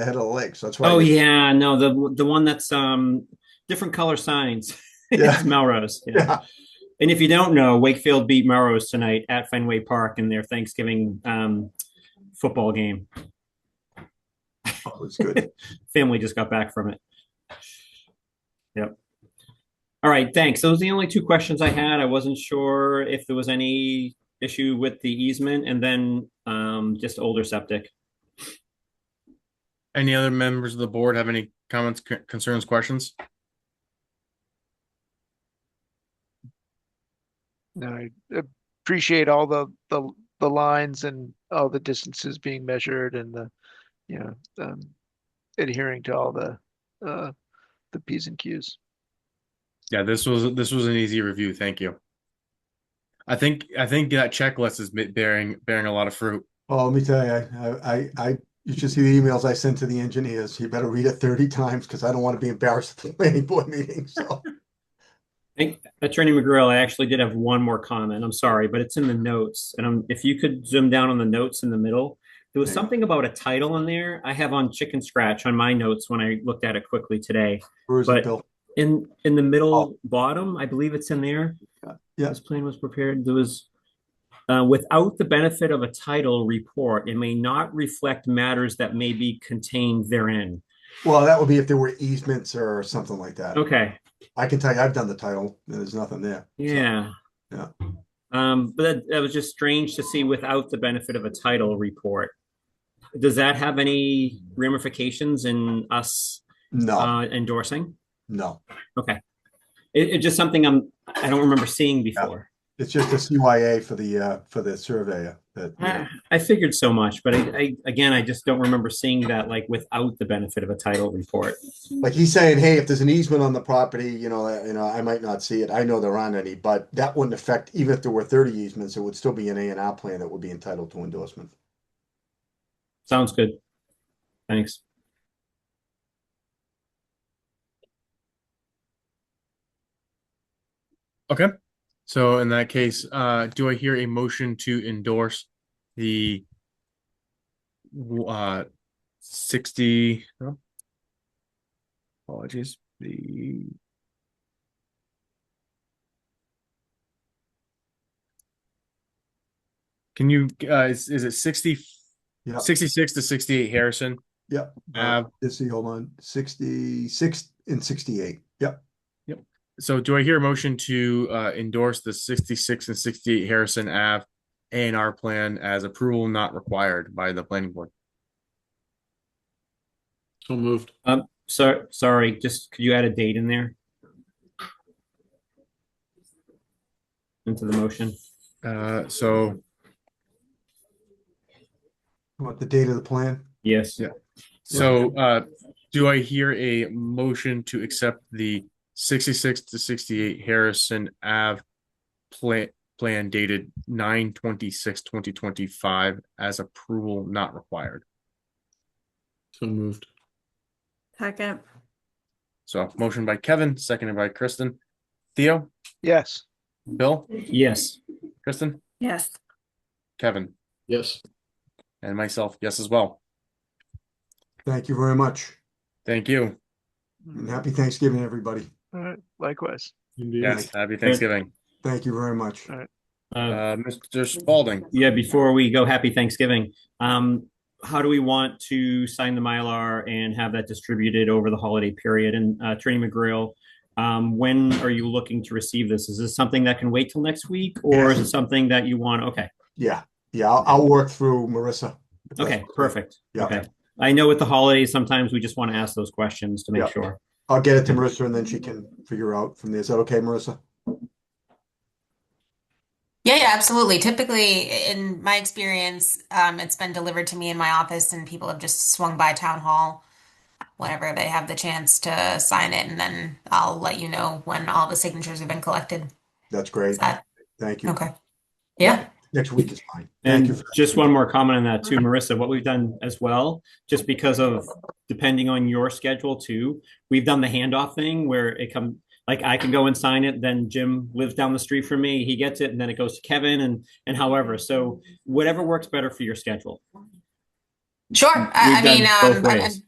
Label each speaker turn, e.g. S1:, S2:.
S1: the head of the lake. So that's why.
S2: Oh
S1: you-
S2: yeah, no the the one that's um different color signs.
S1: Yeah.
S2: it's Melrose. yeah.
S1: Yeah.
S2: And if you don't know, Wakefield beat Melrose tonight at Fenway Park in their Thanksgiving um, football game.
S1: It was good.
S2: Family just got back from it. Yep. All right, thanks. Those are the only two questions I had. I wasn't sure if there was any issue with the easement and then um, just older septic.
S3: Any other members of the board have any comments, c- concerns, questions?
S4: I appreciate all the, the, the lines and all the distances being measured and the, you know, um, adhering to all the, uh, the Ps and Qs.
S3: Yeah, this was this was an easy review. Thank you. I think I think that checklist is bit- bearing bearing a lot of fruit.
S1: Well, Oh, let me tell you, I, I, I, you should see the emails I sent to the engineers. You better read it thirty times because I don't want to be embarrassed at the planning board meeting. So
S2: Attorney McGrill, I actually did have one more comment. I'm sorry, but it's in the notes. And i if you could zoom down on the notes in the middle, there was
S1: Yeah.
S2: something about a title in there. I have on chicken scratch on my notes when I looked at it quickly today.
S1: where is it,
S2: But-
S1: Bill?
S2: In in the middle
S1: Oh.
S2: bottom, I believe it's in there.
S1: Yeah.
S2: This plan was prepared. There was uh, without the benefit of a title report, it may not reflect matters that may be contained therein.
S1: Well, that would be if there were easements or something like that.
S2: Okay.
S1: I can tell you, I've done the title. and There's nothing there.
S2: Yeah.
S1: Yeah.
S2: Um, but that, that was just strange to see without the benefit of a title report. Does that have any ramifications in us
S1: No,
S2: uh, endorsing?
S1: no.
S2: It, it's just something I'm I don't remember seeing before.
S1: It's just a CYA for the, uh, for the surveyor that. you know,
S2: I, I figured so much, but I, I again I just don't remember seeing that like without the benefit of a title report.
S1: Like he's saying, hey, if there's an easement on the property, you know, uh, you know, I might not see it. I know there aren't any, but that wouldn't affect, even if there were thirty easements, it would still be an A and R plan that would be entitled to endorsement.
S2: Sounds good. Thanks.
S3: Okay. So in that case, uh, do I hear a motion to endorse the uh sixty? no? Apologies. The can you uh, is, is it 60
S1: Yeah.
S3: 66 to 68 Harrison?
S1: Yep.
S3: Uh,
S1: Let's see, hold on, sixty-six and sixty-eight. Yep.
S3: So do I hear a motion to uh, endorse the sixty-six and sixty-eight Harrison Ave A and R plan as approval not required by the planning board?
S5: So moved.
S2: So sorry, just could you add a date in there? Into the motion.
S3: Uh, so
S1: What, the date of the plan?
S2: Yes.
S3: Yeah. so uh, do I hear a motion to accept the sixty-six to sixty-eight Harrison Ave plan plan dated 9 2025 as approval not required?
S5: So moved.
S6: Second,
S3: So motion by Kevin, seconded by Kristen. Theo,
S4: Yes,
S3: Bill,
S2: Yes.
S3: Kristen,
S6: yes,
S3: Kevin.
S5: Yes.
S3: And myself, yes, as well.
S1: Thank you very much.
S3: Thank you.
S1: And happy Thanksgiving, everybody.
S4: all right, likewise.
S5: Indeed.
S3: Yes, happy Thanksgiving.
S1: Thank you very much.
S2: Uh,
S3: Uh, Mr. Spalding,
S2: yeah, before we go, happy Thanksgiving. Um, how do we want to sign the Mylar and have that distributed over the holiday period? And uh, Attorney McGrail, um, when are you looking to receive this? Is this something that can wait till next week or is it something that you want? Okay.
S1: Yeah, yeah, I'll, I'll work through Marissa. if that's
S2: Okay. Perfect.
S1: Yeah.
S2: Okay. I know with the holidays, sometimes we just want to ask those questions to make
S1: Yeah.
S2: sure.
S1: I'll get it to Marissa and then she can figure out from there. Is that okay, Marissa?
S7: Yeah, yeah, absolutely. Typically, in my experience, um, it's been delivered to me in my office, and people have just swung by town hall whenever they have the chance to sign it, and then I'll let you know when all the signatures have been collected.
S1: That's great.
S7: Is that
S1: Thank you.
S7: okay? Yeah.
S1: Next week is fine. Thank you.
S2: And just one more comment on that too, Marissa, what we've done as well, just because of depending on your schedule too, we've done the handoff thing where it come, like I can go and sign it, then Jim lives down the street from me, he gets it, and then it goes to Kevin and, and however, so whatever works better for your schedule.
S7: Sure. I, I
S2: We've
S7: mean,
S2: done both
S7: um, I- I-
S2: ways.